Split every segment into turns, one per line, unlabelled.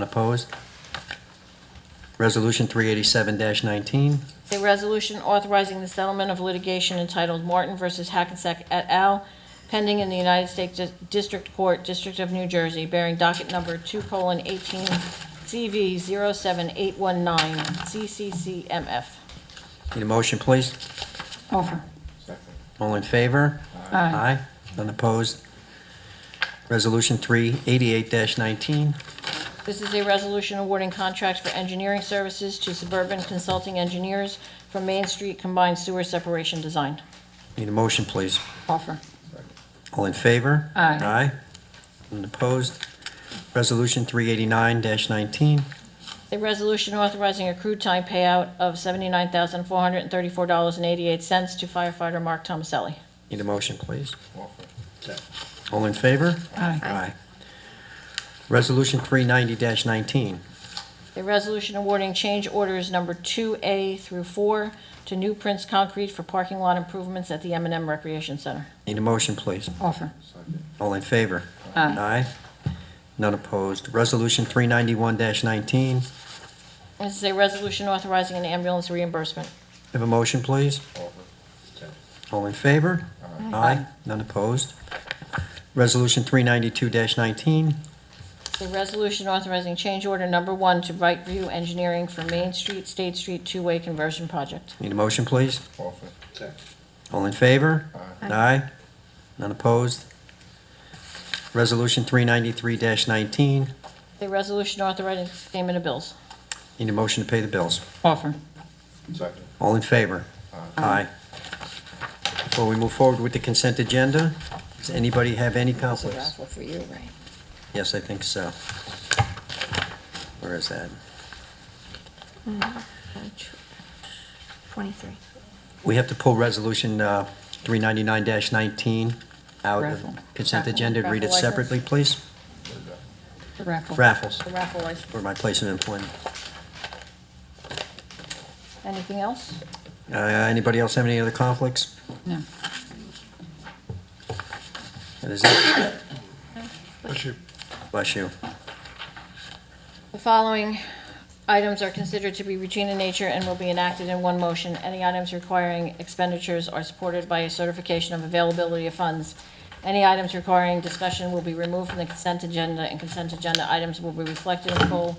Unopposed? Resolution 387-19,
A resolution authorizing the settlement of litigation entitled Martin versus Hackensack et al., pending in the United States Dis- District Court, District of New Jersey, bearing docket number 2:18 CV 07819 CCCMF.
need a motion, please?
Offer.
All in favor?
Aye.
None opposed? Resolution 388-19,
This is a resolution awarding contracts for engineering services to Suburban Consulting Engineers for Main Street Combined Sewer Separation Design.
need a motion, please?
Offer.
All in favor?
Aye.
Aye. None opposed? Resolution 389-19,
A resolution authorizing accrued time payout of $79,434.88 to firefighter Mark Tomaselli.
need a motion, please? All in favor?
Aye.
Aye. Resolution 390-19,
A resolution awarding change orders number 2A through 4 to New Prince Concrete for parking lot improvements at the m and M Recreation Center.
need a motion, please?
Offer.
All in favor?
Aye.
Aye. None opposed. Resolution 391-19,
This is a resolution authorizing an ambulance reimbursement.
have a motion, please? All in favor? Aye. None opposed. Resolution 392-19,
It's a resolution authorizing change order number 1 to Bright View Engineering for Main Street, State Street two-way conversion project.
need a motion, please? All in favor? Aye. None opposed. Resolution 393-19,
It's a resolution authorizing payment of bills.
need a motion to pay the bills.
Offer.
All in favor? Aye. Before we move forward with the consent agenda, does anybody have any conflicts?
for you, right?
Yes, I think so. Where is that?
23.
We have to pull Resolution uh, 399-19 out of
Raffle.
consent
Raffle.
agenda. Read it
Raffle license.
separately, please.
The raffle.
Raffles,
The raffle license.
for my place of employment.
Anything else?
Uh, Anybody else have any other conflicts?
No.
That is it.
Bless you.
Bless you.
The following items are considered to be routine in nature and will be enacted in one motion. Any items requiring expenditures are supported by a certification of availability of funds. Any items requiring discussion will be removed from the consent agenda, and consent agenda items will be reflected in full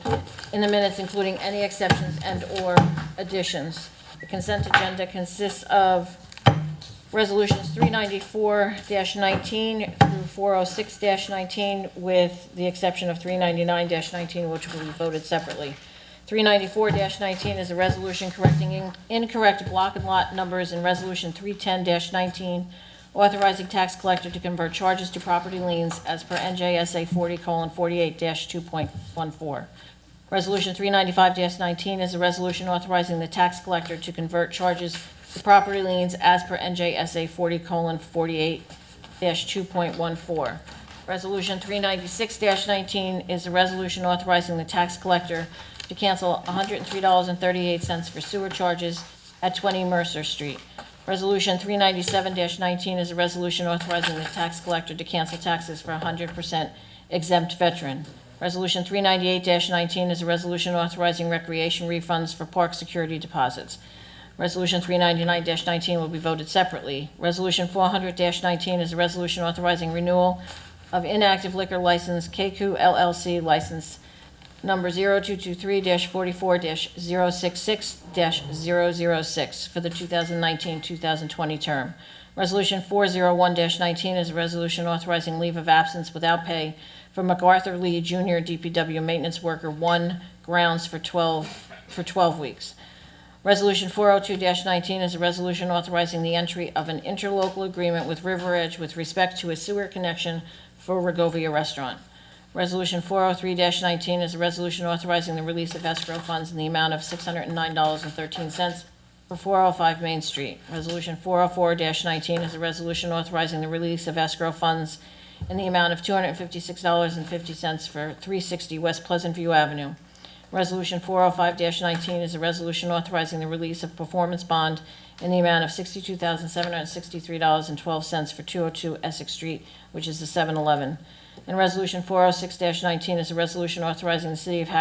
in the minutes, including any exceptions and/or additions. The consent agenda consists of Resolutions 394-19 through 406-19, with the exception of 399-19, which will be voted separately. 394-19 is a resolution correcting in- incorrect block and lot numbers in Resolution 310-19, authorizing tax collector to convert charges to property liens as per NJSA 40:48-2.14. Resolution 395-19 is a resolution authorizing the tax collector to convert charges to property liens as per NJSA 40:48-2.14. Resolution 396-19 is a resolution authorizing the tax collector to cancel $103.38 for sewer charges at 20 Mercer Street. Resolution 397-19 is a resolution authorizing the tax collector to cancel taxes for 100% exempt veteran. Resolution 398-19 is a resolution authorizing recreation refunds for park security deposits. Resolution 399-19 will be voted separately. Resolution 400-19 is a resolution authorizing renewal of inactive liquor license KQ LLC license number 0223-44-066-006 for the 2019-2020 term. Resolution 401-19 is a resolution authorizing leave of absence without pay for MacArthur Lee Jr., DPW Maintenance Worker 1, grounds for 12, for 12 weeks. Resolution 402-19 is a resolution authorizing the entry of an interlocal agreement with River Edge with respect to a sewer connection for Rigovia Restaurant. Resolution 403-19 is a resolution authorizing the release of escrow funds in the amount of $609.13 for 405 Main Street. Resolution 404-19 is a resolution authorizing the release of escrow funds in the amount of $256.50 for 360 West Pleasant View Avenue. Resolution 405-19 is a resolution authorizing the release of performance bond in the amount of oh $62,763.12 for 202 Essex Street, which is the 7-Eleven. oh And Resolution 406-19 is a resolution authorizing the City of Hackensack